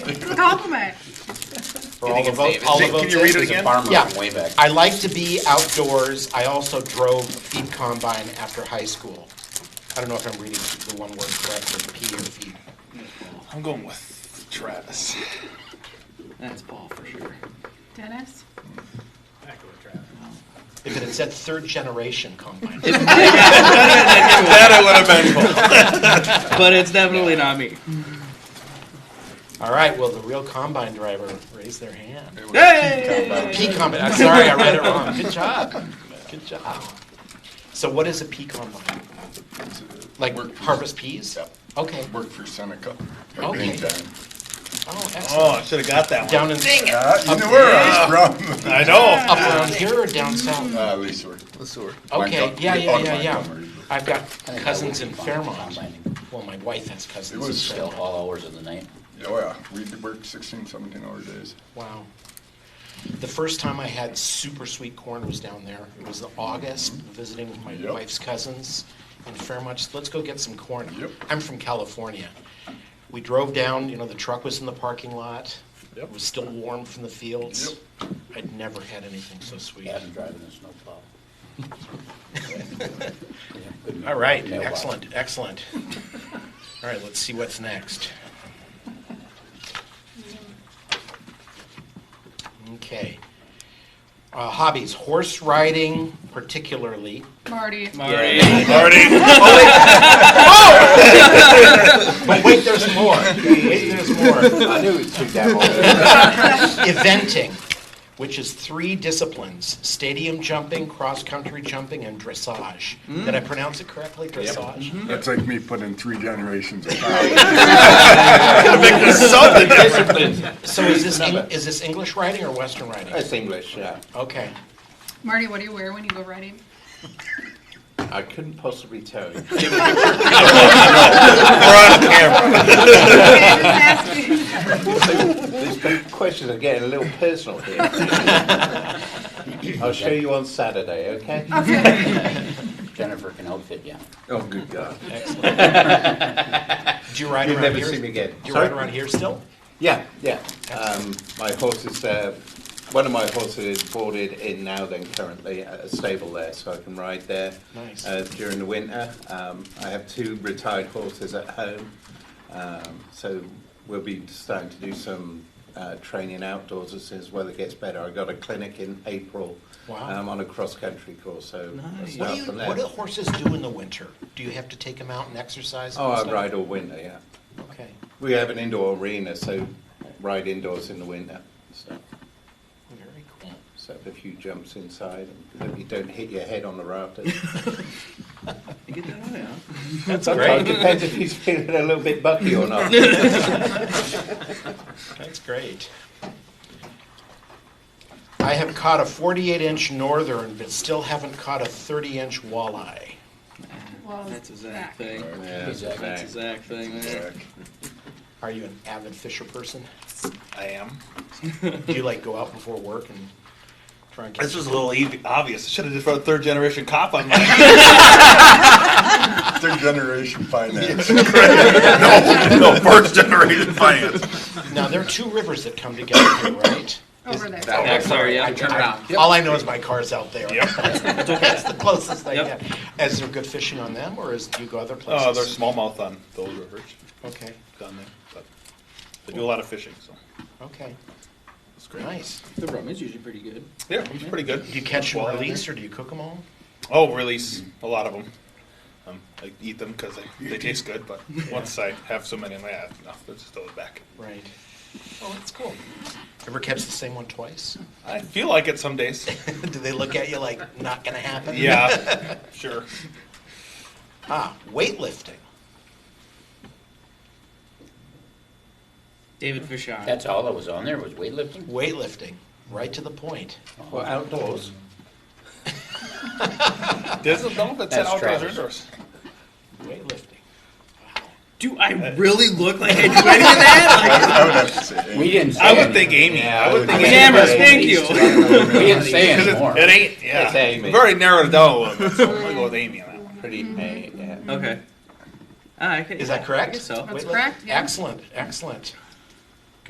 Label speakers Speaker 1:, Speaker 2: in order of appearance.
Speaker 1: compliment.
Speaker 2: For all the
Speaker 3: it's
Speaker 2: vote,
Speaker 3: Davis.
Speaker 2: all the
Speaker 4: Jake, can
Speaker 2: votes
Speaker 4: you read
Speaker 2: in
Speaker 4: it
Speaker 2: is a
Speaker 4: again?
Speaker 2: farmer
Speaker 5: Yeah.
Speaker 2: from way back.
Speaker 5: I like to be outdoors. I also drove feed combine after high school. I don't know if I'm reading the one word correctly, P or feed.
Speaker 4: I'm going with Travis.
Speaker 3: That's Paul for sure.
Speaker 1: Dennis?
Speaker 5: If it had said third generation combine.
Speaker 4: That I would have been Paul.
Speaker 3: But it's definitely not me.
Speaker 5: All right, well, the real combine driver raised their hand.
Speaker 3: Hey!
Speaker 5: P combine, I'm sorry, I read it wrong. Good job. Good job. So what is a pea combine? Like
Speaker 4: Work for-
Speaker 5: harvest peas? Okay.
Speaker 4: Worked for Seneca.
Speaker 5: Okay.
Speaker 4: Meantime.
Speaker 5: Oh,
Speaker 4: Oh,
Speaker 5: excellent.
Speaker 4: I should have got that one.
Speaker 5: Down in,
Speaker 4: Uh, you knew where I was from. I know.
Speaker 5: up around here or down south?
Speaker 4: Uh, Leesburg.
Speaker 5: Okay,
Speaker 4: Montgomery-
Speaker 5: yeah, yeah,
Speaker 4: on
Speaker 5: yeah, yeah.
Speaker 4: Montgomery.
Speaker 5: I've got cousins in Fairmont. Well, my wife has
Speaker 4: It
Speaker 5: cousins in
Speaker 4: was
Speaker 6: Still
Speaker 5: Fairmont.
Speaker 6: all hours of the night.
Speaker 4: Oh, yeah. We worked 16, 17 hour days.
Speaker 5: Wow. The first time I had super sweet corn was down there. It was August, visiting with my
Speaker 4: Mm-hmm. Yep.
Speaker 5: wife's cousins in Fairmont. Just, Let's go get some corn.
Speaker 4: Yep.
Speaker 5: I'm from California. We drove down, you know, the truck was in the parking lot. It
Speaker 4: Yep.
Speaker 5: was still warm from the fields. I'd never had anything so sweet.
Speaker 6: After driving a snowplow.
Speaker 5: All right,
Speaker 6: Mailbox.
Speaker 5: excellent, excellent. All right, let's see what's next. Okay. Uh, Hobbies, horse riding particularly.
Speaker 1: Marty?
Speaker 3: Marty.
Speaker 5: But wait, there's more. Wait, there's more.
Speaker 6: I knew it took that
Speaker 5: Eventing, which is three disciplines, stadium jumping, cross-country jumping, and dressage. Did I pronounce it correctly, dressage?
Speaker 4: That's like me putting three generations of
Speaker 5: So is this, Eng- is this English riding or Western riding?
Speaker 6: That's English, yeah.
Speaker 5: Okay.
Speaker 1: Marty, what do you wear when you go riding?
Speaker 6: I couldn't possibly tell you.
Speaker 1: Okay, just asking.
Speaker 6: These questions are getting a little personal here. I'll show you on Saturday, okay?
Speaker 1: Okay.
Speaker 6: Jennifer can outfit you.
Speaker 4: Oh, good God.
Speaker 5: Do you ride
Speaker 6: You'll
Speaker 5: around
Speaker 6: never
Speaker 5: here?
Speaker 6: see me again.
Speaker 5: Do you
Speaker 6: Sorry?
Speaker 5: ride around here still?
Speaker 6: Yeah, yeah. Um, my horse is, uh, one of my horses is boarded in now then currently at a stable there, so I can ride there.
Speaker 5: Nice.
Speaker 6: Uh, during the winter, um, I have two retired horses at home, um, so we'll be starting to do some uh, training outdoors as soon as weather gets better. I got a clinic in April.
Speaker 5: Wow.
Speaker 6: Um, on a cross-country course, so we'll
Speaker 5: What
Speaker 6: start
Speaker 5: do, you,
Speaker 6: from there.
Speaker 5: what do horses do in the winter? Do you have to take them out and exercise? and
Speaker 6: oh, I
Speaker 5: stuff?
Speaker 6: ride all winter, yeah.
Speaker 5: Okay,
Speaker 6: We have an indoor arena, so ride indoors in the winter, so.
Speaker 5: very cool.
Speaker 6: Set up a few jumps inside, and hope you don't hit your head on the
Speaker 3: You
Speaker 6: rafters.
Speaker 3: get that on, yeah?
Speaker 5: That's
Speaker 6: Sometimes it
Speaker 5: great.
Speaker 6: depends if he's feeling a little bit bucky or not.
Speaker 5: That's great. I have caught a 48-inch northern, but still haven't caught a 30-inch walleye.
Speaker 1: Well,
Speaker 3: That's a Zach
Speaker 1: Zach.
Speaker 3: thing.
Speaker 6: Yeah,
Speaker 3: That's a
Speaker 6: exactly.
Speaker 3: Zach thing. there.
Speaker 5: Are you an avid fisher person?
Speaker 7: I am.
Speaker 5: Do you like go out before work and try and catch?
Speaker 7: This was a little ev- obvious. I should have just wrote third generation cop on my.
Speaker 4: Third generation finance. no, no, first generation finance.
Speaker 5: Now, there are two rivers that come together here, right?
Speaker 1: Over there.
Speaker 3: Yeah, sorry, yeah, turn around.
Speaker 5: All I know is my car's out there.
Speaker 7: Yep.
Speaker 5: That's the closest I
Speaker 3: Yep. Uh,
Speaker 5: get. Is there good fishing on them, or is, do you go other places?
Speaker 7: Oh, they're smallmouth on those rivers
Speaker 5: Okay,
Speaker 7: down there, but they do a lot of fishing. So
Speaker 5: okay,
Speaker 7: it's
Speaker 5: nice.
Speaker 3: The rum is usually pretty good.
Speaker 7: Yeah, it's pretty good.
Speaker 5: Do you catch
Speaker 7: Well,
Speaker 5: and
Speaker 7: down
Speaker 5: release, or do you cook them all?
Speaker 7: there. Oh, release a lot of them. Um, I eat them because they, they taste good, but once I have so many in my head, no, they're just throw it back.
Speaker 5: Right. Oh, that's cool. Ever catch the same one twice?
Speaker 7: I feel like it some days.
Speaker 5: Do they look at you like, not gonna happen?
Speaker 7: Yeah, sure.
Speaker 5: Ah, weightlifting.
Speaker 3: David Fishon.
Speaker 6: That's all that was on there, was weightlifting?
Speaker 5: Weightlifting, right to the point.
Speaker 6: Well, outdoors.
Speaker 7: There's a dump that's,
Speaker 6: That's
Speaker 7: outdoors or
Speaker 6: Travis.
Speaker 7: indoors.
Speaker 5: Weightlifting.
Speaker 3: Do I really look like I do any of that?
Speaker 4: I would have to say.
Speaker 6: We didn't say.
Speaker 7: I would think
Speaker 6: anything.
Speaker 7: Amy. I would think
Speaker 3: Like,
Speaker 7: Amy.
Speaker 3: Cameras, thank you.
Speaker 6: We didn't say anymore.
Speaker 7: It ain't. Yeah,
Speaker 6: It's Amy.
Speaker 7: we've already narrowed it down a little bit. So I'm gonna go with Amy on that one.
Speaker 6: Pretty, uh, yeah.
Speaker 3: Okay. Ah, I can,
Speaker 5: Is that correct?
Speaker 3: I guess so.
Speaker 1: That's
Speaker 5: Weightlifting?
Speaker 1: correct, yeah.
Speaker 5: Excellent, excellent.